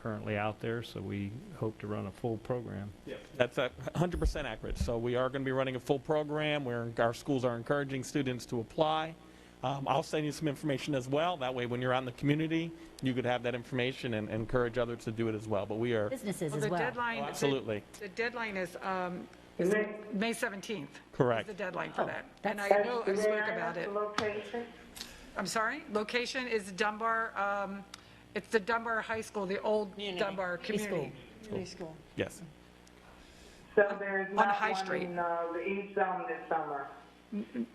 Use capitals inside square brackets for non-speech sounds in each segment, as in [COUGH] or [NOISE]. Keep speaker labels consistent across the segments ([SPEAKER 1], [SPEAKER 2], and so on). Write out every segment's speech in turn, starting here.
[SPEAKER 1] currently out there, so we hope to run a full program.
[SPEAKER 2] That's a 100% accurate. So we are going to be running a full program where our schools are encouraging students to apply. Um, I'll send you some information as well. That way, when you're out in the community, you could have that information and encourage others to do it as well. But we are
[SPEAKER 3] businesses
[SPEAKER 4] Well,
[SPEAKER 3] as
[SPEAKER 4] the
[SPEAKER 3] well.
[SPEAKER 4] deadline.
[SPEAKER 2] Oh, absolutely.
[SPEAKER 4] The deadline is um,
[SPEAKER 5] And that-
[SPEAKER 4] May 17th.
[SPEAKER 2] Correct.
[SPEAKER 4] Is the deadline for that. And I
[SPEAKER 3] Oh, that's-
[SPEAKER 4] know, I
[SPEAKER 5] that's where
[SPEAKER 4] spoke
[SPEAKER 5] I
[SPEAKER 4] about
[SPEAKER 5] left
[SPEAKER 4] it.
[SPEAKER 5] the Location?
[SPEAKER 4] I'm sorry? Location is Dunbar, um, it's the Dunbar High School, the old Dunbar community.
[SPEAKER 2] yes.
[SPEAKER 5] So there's
[SPEAKER 4] On
[SPEAKER 5] not
[SPEAKER 4] High
[SPEAKER 5] one
[SPEAKER 4] Street.
[SPEAKER 5] in uh, the East Zone this summer.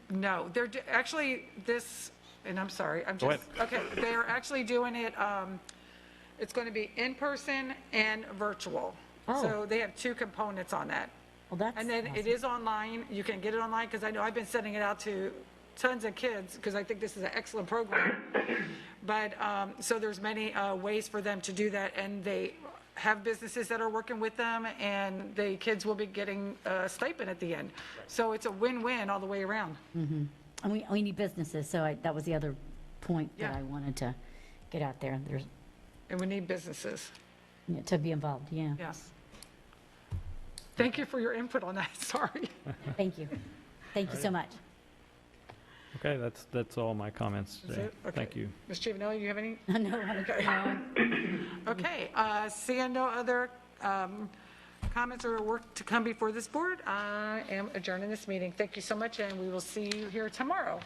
[SPEAKER 4] No, they're, do- actually, this, and I'm sorry, I'm
[SPEAKER 2] Go
[SPEAKER 4] just, okay, they are actually doing it, um, it's going to be in person and virtual.
[SPEAKER 3] Oh.
[SPEAKER 4] So they have two components on that.
[SPEAKER 3] Well, that's
[SPEAKER 4] And then it
[SPEAKER 3] awesome.
[SPEAKER 4] is online, you can get it online, because I know I've been sending it out to tons of kids, because I think this is an excellent program. But, um, so there's many uh, ways for them to do that, and they have businesses that are working with them, and the kids will be getting a stipend at the end. So it's a win-win all the way around.
[SPEAKER 3] And we, we need businesses, so I, that was the other point that
[SPEAKER 4] Yeah.
[SPEAKER 3] I wanted to get out there. There's,
[SPEAKER 4] And we need businesses,
[SPEAKER 3] yeah, to be involved, yeah.
[SPEAKER 4] yes. Thank you for your input on that, [LAUGHS] sorry.
[SPEAKER 3] Thank you. Thank you so much.
[SPEAKER 1] Okay, that's, that's all my comments today.
[SPEAKER 4] it? Okay.
[SPEAKER 1] Thank you.
[SPEAKER 4] Ms. Chivinelli, you have any?
[SPEAKER 3] [LAUGHS] No, I'm-
[SPEAKER 4] [LAUGHS]
[SPEAKER 3] no,
[SPEAKER 4] Okay, uh, seeing no other um, comments or work to come before this board, I am adjourning this meeting. Thank you so much, and we will see you here tomorrow.